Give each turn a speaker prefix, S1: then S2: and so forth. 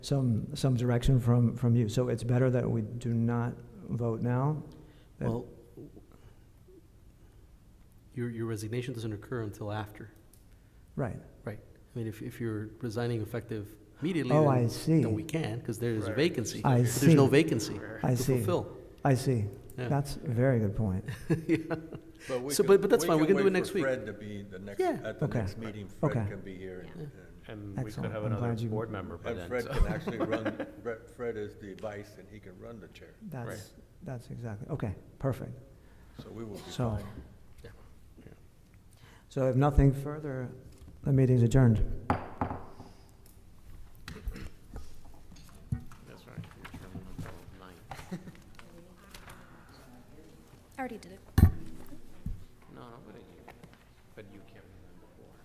S1: some, some direction from, from you. So it's better that we do not vote now? that-
S2: Well, your, your resignation doesn't occur until after.
S1: Right.
S2: I mean, if, if you're resigning effective immediately,
S1: Oh,
S2: then-
S1: I see.
S2: then we can, because there is a
S3: Right.
S2: vacancy.
S1: I
S2: But There's no
S1: see.
S2: vacancy
S1: I
S2: to
S1: see.
S2: fulfill.
S1: I see.
S2: Yeah.
S1: That's a very good point.
S2: Yeah.
S3: But we
S2: So,
S3: can-
S2: but- but that's fine. We can do
S3: wait
S2: it next
S3: for
S2: week.
S3: Fred to be the next,
S2: Yeah.
S3: at the
S1: Okay.
S3: next meeting,
S1: Okay.
S3: Fred can be here. and-
S4: And we could
S1: Excellent.
S4: have
S1: I'm
S4: another
S1: glad you-
S4: board member by
S3: And and
S4: then.
S3: Fred
S4: so-
S3: can actually run, Fred- Fred is the vice and he can run the chair,
S1: That's, that's exactly, okay, perfect.
S3: so we will be
S1: So-
S3: fine.
S1: So if nothing further, the meeting's adjourned.